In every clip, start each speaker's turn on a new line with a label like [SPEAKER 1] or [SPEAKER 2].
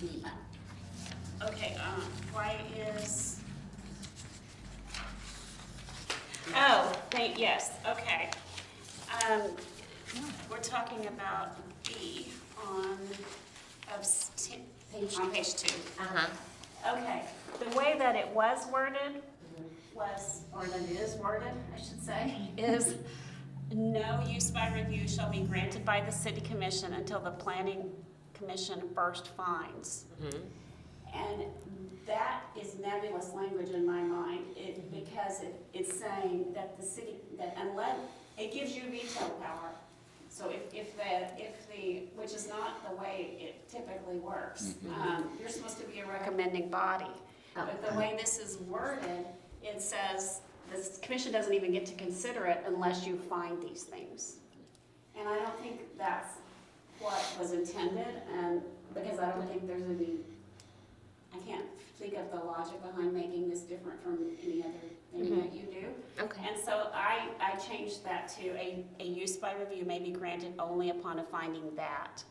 [SPEAKER 1] B.
[SPEAKER 2] Okay, um, why is? Oh, thank, yes, okay. Um, we're talking about B on, of, s- t-
[SPEAKER 1] Page
[SPEAKER 2] on page two.
[SPEAKER 1] Uh-huh.
[SPEAKER 2] Okay, the way that it was worded was, or that it is worded, I should say, is no use by review shall be granted by the city commission until the planning commission first finds. And that is nebulous language in my mind, it, because it, it's saying that the city, that unless, it gives you veto power. So if, if the, if the, which is not the way it typically works. Um, you're supposed to be a recommending body. But the way this is worded, it says, the commission doesn't even get to consider it unless you find these things. And I don't think that's what was intended, and, because I don't think there's any I can't think of the logic behind making this different from any other thing that you do.
[SPEAKER 1] Okay.
[SPEAKER 2] And so I, I changed that to a, a use by review may be granted only upon a finding that.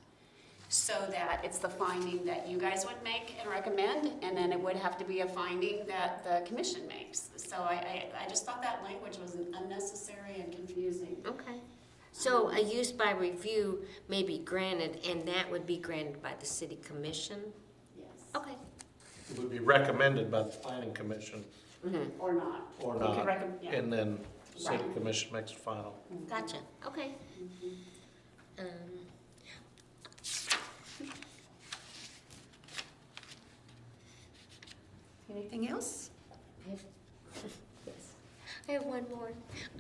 [SPEAKER 2] So that it's the finding that you guys would make and recommend, and then it would have to be a finding that the commission makes. So I, I, I just thought that language was unnecessary and confusing.
[SPEAKER 1] Okay. So a use by review may be granted, and that would be granted by the city commission?
[SPEAKER 2] Yes,
[SPEAKER 1] Okay.
[SPEAKER 3] It would be recommended by the planning commission
[SPEAKER 1] Mhm.
[SPEAKER 2] or not.
[SPEAKER 3] or
[SPEAKER 2] You could
[SPEAKER 3] not,
[SPEAKER 2] recommend, yeah.
[SPEAKER 3] and then city
[SPEAKER 2] Right.
[SPEAKER 3] commission makes the final.
[SPEAKER 1] Gotcha, okay.
[SPEAKER 2] Mm-hmm.
[SPEAKER 1] Um,
[SPEAKER 4] Anything else?
[SPEAKER 1] I have- yes. I have one more.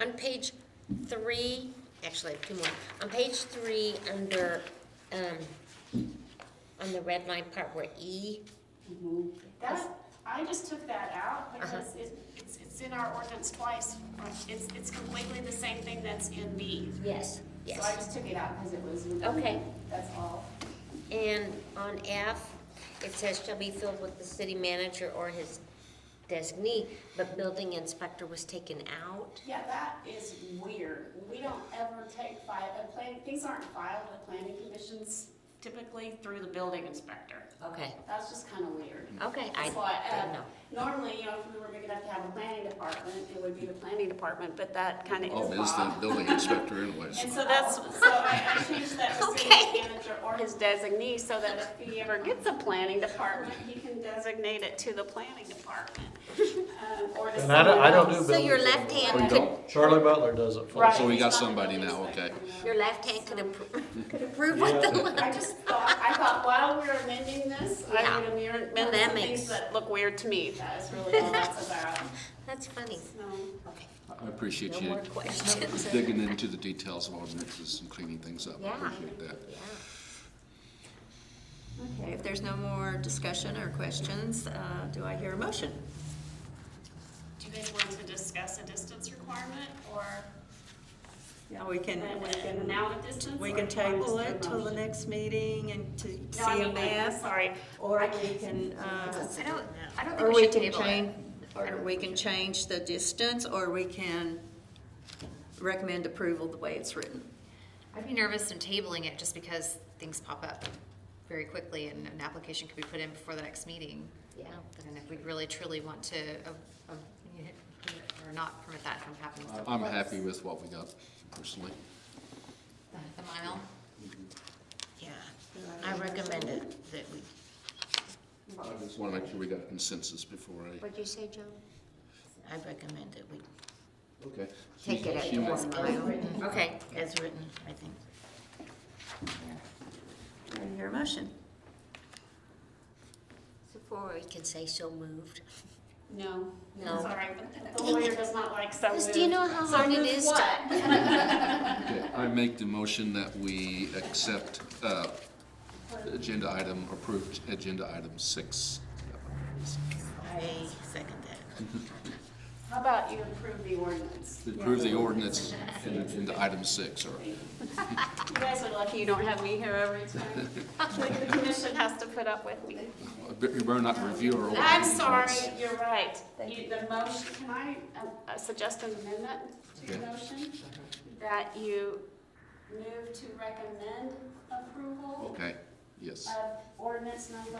[SPEAKER 1] On page three, actually, I have two more. On page three, under, um, on the red line part where E,
[SPEAKER 2] Mhm. That, I just took that out
[SPEAKER 1] Uh-huh.
[SPEAKER 2] because it- it's, it's in our ordinance twice. It's, it's completely the same thing that's in B.
[SPEAKER 1] yes,
[SPEAKER 2] So I
[SPEAKER 1] yes.
[SPEAKER 2] just took it out because it was.
[SPEAKER 1] Okay.
[SPEAKER 2] That's all.
[SPEAKER 1] And on F, it says shall be filled with the city manager or his designee, but building inspector was taken out.
[SPEAKER 2] Yeah, that is weird. We don't ever take file, uh, plan, things aren't filed with planning commissions typically through the building inspector.
[SPEAKER 1] Okay,
[SPEAKER 2] That's just kind of weird.
[SPEAKER 1] okay, I
[SPEAKER 2] That's why,
[SPEAKER 1] didn't know.
[SPEAKER 2] uh, normally, you know, if we were big enough to have a planning department, it would be the planning department, but that kind of is
[SPEAKER 5] Oh, it's the
[SPEAKER 2] Bob.
[SPEAKER 5] building inspector anyways.
[SPEAKER 2] And so that's, so I I changed that to city
[SPEAKER 1] Okay.
[SPEAKER 2] manager or his designee, so that if he ever gets a planning department, he can designate it to the planning department. um, Or to
[SPEAKER 3] And I don't, I don't
[SPEAKER 2] someone
[SPEAKER 3] do
[SPEAKER 2] else.
[SPEAKER 1] So
[SPEAKER 3] building.
[SPEAKER 1] your left
[SPEAKER 5] Oh, you
[SPEAKER 1] hand, could-
[SPEAKER 5] don't?
[SPEAKER 3] Charlie Butler does it for us.
[SPEAKER 5] So we
[SPEAKER 2] Right.
[SPEAKER 5] got somebody now, okay.
[SPEAKER 1] your left hand could appro- could approve what the left.
[SPEAKER 2] I just thought, I thought while we were amending this, I
[SPEAKER 1] Yeah.
[SPEAKER 2] would amend
[SPEAKER 1] Well,
[SPEAKER 2] amend
[SPEAKER 1] that
[SPEAKER 2] some things
[SPEAKER 1] makes-
[SPEAKER 2] that look weird to me. That is really all that's about. Um,
[SPEAKER 1] That's funny.
[SPEAKER 2] No.
[SPEAKER 1] Okay,
[SPEAKER 5] I appreciate
[SPEAKER 1] no
[SPEAKER 5] you
[SPEAKER 1] more questions.
[SPEAKER 5] digging into the details of ordinances and cleaning things up. I
[SPEAKER 1] Yeah.
[SPEAKER 5] appreciate that.
[SPEAKER 1] Yeah.
[SPEAKER 4] Okay, if there's no more discussion or questions, uh, do I hear a motion?
[SPEAKER 2] Do you guys want to discuss a distance requirement or
[SPEAKER 4] Yeah, we can,
[SPEAKER 2] an amount of distance?
[SPEAKER 4] we
[SPEAKER 2] or
[SPEAKER 4] can
[SPEAKER 2] do you want
[SPEAKER 4] table
[SPEAKER 2] just a
[SPEAKER 4] it till the
[SPEAKER 2] motion?
[SPEAKER 4] next meeting and to
[SPEAKER 2] No, I
[SPEAKER 4] see a
[SPEAKER 2] mean, like, I'm
[SPEAKER 4] map.
[SPEAKER 2] sorry.
[SPEAKER 4] Or
[SPEAKER 2] I
[SPEAKER 4] we can, uh,
[SPEAKER 6] I don't, I don't
[SPEAKER 4] or
[SPEAKER 6] think we
[SPEAKER 4] we
[SPEAKER 6] should
[SPEAKER 4] can
[SPEAKER 6] table it.
[SPEAKER 4] change, or we can change the distance, or we can recommend approval the way it's written.
[SPEAKER 6] I'd be nervous in tabling it just because things pop up very quickly and an application could be put in before the next meeting. Um,
[SPEAKER 1] Yeah.
[SPEAKER 6] And if we really truly want to, uh, uh, or not permit that from happening.
[SPEAKER 5] I- I'm happy with what we got personally.
[SPEAKER 6] The mile,
[SPEAKER 1] Yeah, I recommend it, that we.
[SPEAKER 5] I just want to make sure we got consensus before I,
[SPEAKER 1] What'd you say, Joe? I recommend that we
[SPEAKER 5] okay.
[SPEAKER 1] take it
[SPEAKER 5] She-
[SPEAKER 1] at
[SPEAKER 5] she-
[SPEAKER 1] one mile. Okay. As written, I think.
[SPEAKER 4] Do I hear a motion?
[SPEAKER 1] Before we can say so moved.
[SPEAKER 2] No.
[SPEAKER 1] No.
[SPEAKER 2] Sorry, but the lawyer does not like so
[SPEAKER 1] Liz, do you
[SPEAKER 2] moved.
[SPEAKER 1] know how
[SPEAKER 2] So
[SPEAKER 1] hard it
[SPEAKER 2] moved
[SPEAKER 1] is
[SPEAKER 2] what?
[SPEAKER 1] to?
[SPEAKER 5] Okay, I make the motion that we accept uh, agenda item, approved agenda item six.
[SPEAKER 1] I second that.
[SPEAKER 2] How about you approve the ordinance?
[SPEAKER 5] Approve the ordinance in agenda item six, or
[SPEAKER 2] You guys are lucky you don't have me here every time. The commission has to put up with me.
[SPEAKER 5] you better not review our.
[SPEAKER 2] I'm
[SPEAKER 5] ordinance.
[SPEAKER 2] sorry, you're right. You, the motion, can I um, uh, suggest an amendment to the
[SPEAKER 5] Okay.
[SPEAKER 2] motion? That you move to recommend approval
[SPEAKER 5] Okay, yes.
[SPEAKER 2] of ordinance number